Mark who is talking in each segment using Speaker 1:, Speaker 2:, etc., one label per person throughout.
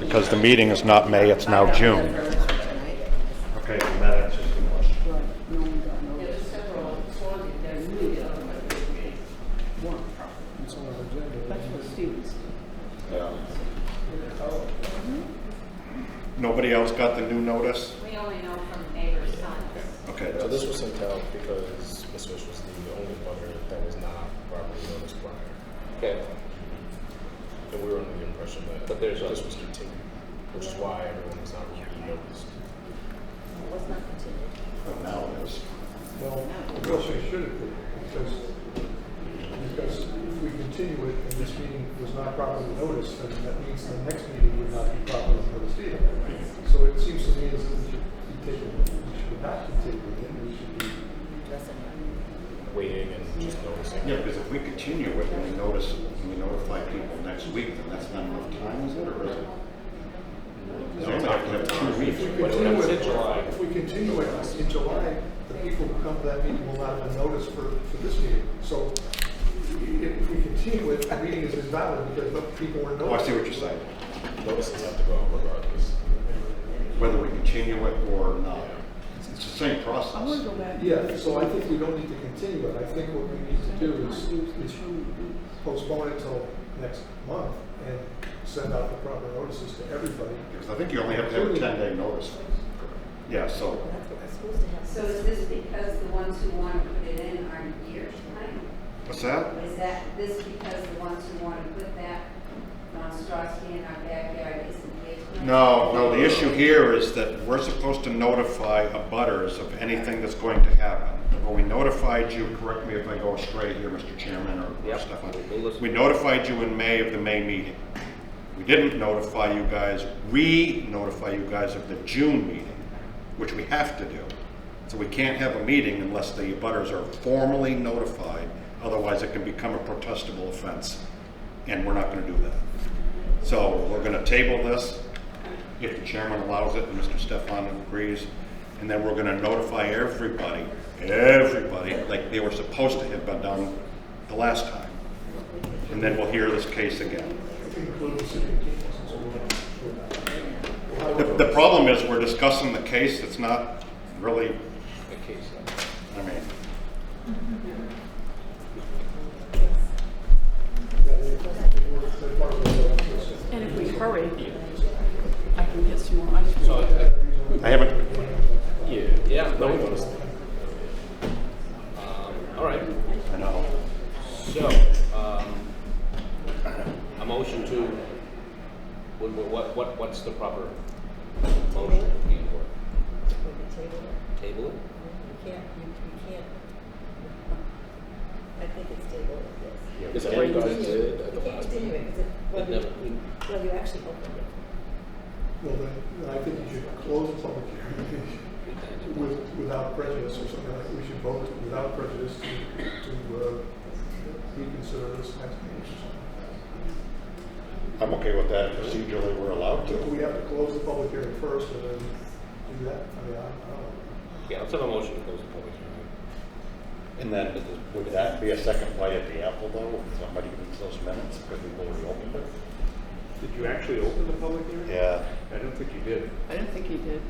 Speaker 1: because the meeting is not May, it's now June. Okay, then that answers the question. Nobody else got the new notice?
Speaker 2: We only know from neighbors' sons.
Speaker 1: Okay,
Speaker 3: So
Speaker 1: that's-
Speaker 3: this was sent out because Miss Fish was the only butter that was not properly noticed prior.
Speaker 4: Okay,
Speaker 3: And we were under the impression that
Speaker 4: But there's
Speaker 3: this
Speaker 4: a-
Speaker 3: was continued, which is why everyone was not really noticed.
Speaker 2: What's not continued?
Speaker 1: but now it is.
Speaker 5: Well, well, they should have, been, because, because if we continue it and this meeting was not properly noticed, then that means the next meeting would not be properly noticed either. So it seems to me as if we should be taking, we should not continue it, we should be,
Speaker 3: Waiting and just noticing.
Speaker 1: Yeah, because if we continue it and we notice, and we notify people next week, then that's not enough time, is it, or is it? Does anybody have to have two weeks?
Speaker 5: if we
Speaker 3: But it would
Speaker 5: continue
Speaker 3: have said
Speaker 5: it,
Speaker 3: July.
Speaker 5: if we continue it in July, the people who come to that meeting will not have been noticed for, for this meeting. So if we continue it, the meeting is invalid because the people were
Speaker 1: Oh, I see
Speaker 5: noticed.
Speaker 1: what you're saying,
Speaker 3: Notices have to go out regardless.
Speaker 1: whether we continue it or not. It's it's the same process.
Speaker 5: Yeah, so I think we don't need to continue it. I think what we need to do is is postpone it till next month and send out the proper notices to everybody.
Speaker 1: Because I think you only have to have a ten-day notice. Yeah, so,
Speaker 6: So is this because the ones who want to put it in aren't here tonight?
Speaker 1: what's that?
Speaker 6: Is that, this because the ones who want to put that monstrosity in our backyard isn't here tonight?
Speaker 1: No, no, the issue here is that we're supposed to notify abutters of anything that's going to happen. Well, we notified you, correct me if I go astray here, Mr. Chairman or
Speaker 4: Yep.
Speaker 1: Stefan.
Speaker 4: We'll listen.
Speaker 1: We notified you in May of the May meeting. We didn't notify you guys, re-notify you guys of the June meeting, which we have to do. So we can't have a meeting unless the abutters are formally notified, otherwise it can become a protestable offense. And we're not gonna do that. So we're gonna table this, if the chairman allows it and Mr. Stefan agrees, and then we're gonna notify everybody, everybody, like they were supposed to have been done the last time. And then we'll hear this case again. The, the problem is, we're discussing the case that's not really,
Speaker 4: the case.
Speaker 1: I mean,
Speaker 7: And if we hurry, I can get some more ice cream.
Speaker 4: So, uh,
Speaker 1: I haven't,
Speaker 4: yeah, yeah, no, we noticed. Um, all right,
Speaker 1: I know.
Speaker 4: so, um, a motion to, what, what, what, what's the proper motion being for? Table it?
Speaker 8: I think it's table, yes.
Speaker 3: Is that what you guys did at the
Speaker 8: You can't
Speaker 3: last
Speaker 8: continue it,
Speaker 3: meeting?
Speaker 8: because it, well,
Speaker 4: But never,
Speaker 8: you, well, you actually opened it.
Speaker 5: Well, then, then I think you should close the public hearing with, without prejudice or something like, we should vote without prejudice to, to, uh, reconsider this next meeting or something.
Speaker 1: I'm okay with that, procedurally, we're allowed
Speaker 5: Do
Speaker 1: to.
Speaker 5: we have to close the public hearing first and then do that? I mean, I I don't
Speaker 4: yeah, let's have a motion to close the public hearing.
Speaker 1: And then, would that be a second bite at the apple, though, if somebody needs those minutes, because we've already opened it?
Speaker 9: Did you actually open the public hearing?
Speaker 1: Yeah.
Speaker 9: I don't think you did,
Speaker 7: I don't think he did.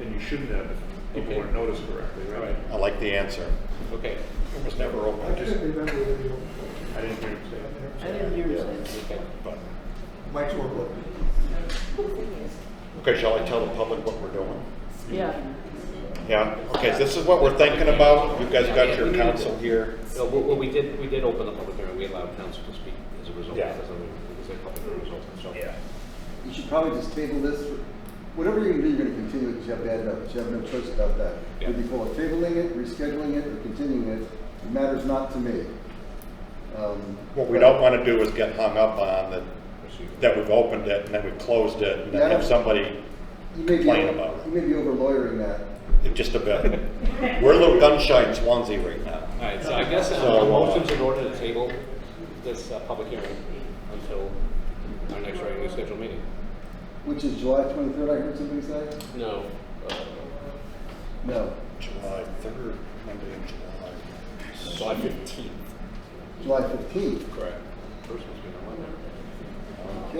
Speaker 9: and you shouldn't have if people
Speaker 4: Okay.
Speaker 9: weren't noticed correctly,
Speaker 4: All
Speaker 9: right?
Speaker 4: right,
Speaker 1: I like the answer.
Speaker 4: okay,
Speaker 1: It was never
Speaker 5: know. I
Speaker 1: opened,
Speaker 5: can't remember if you,
Speaker 9: I didn't hear you say that.
Speaker 7: I didn't hear him say.
Speaker 4: okay.
Speaker 1: but,
Speaker 5: Mike's work, look.
Speaker 8: The thing is,
Speaker 1: okay, shall I tell the public what we're doing?
Speaker 7: Yeah.
Speaker 1: Yeah, okay, this is what we're thinking about, you guys got your counsel here.
Speaker 4: No, well, well, we did, we did open the public hearing, we allowed council to speak as a result,
Speaker 1: Yeah.
Speaker 4: as a, as a public hearing result, so.
Speaker 10: You should probably just table this, for- whatever you're gonna do, you're gonna continue it, because you have to add it up, 'cause you have no choice about that.
Speaker 4: Yeah.
Speaker 10: Whether you call it tabling it, rescheduling it, or continuing it, it matters not to me. Um,
Speaker 1: What we don't wanna do is get hung up on that,
Speaker 4: Proceed.
Speaker 1: that we've opened it, and then we've closed it, and then have somebody
Speaker 10: you may be
Speaker 1: complain
Speaker 10: over-
Speaker 1: about it.
Speaker 10: You may be over lawyering that.
Speaker 1: just a bit. We're a little gun shy in Swansea right now.
Speaker 4: All right, so I guess uh,
Speaker 1: So,
Speaker 4: a
Speaker 1: uh,
Speaker 4: motion's in order to table this uh, public hearing until our next regularly scheduled meeting.
Speaker 10: Which is July twenty-third, I heard somebody say?
Speaker 4: No. uh,
Speaker 10: No,
Speaker 1: July third, Monday in July.
Speaker 4: July fifteenth.
Speaker 10: July fifteenth.
Speaker 4: Correct. First one.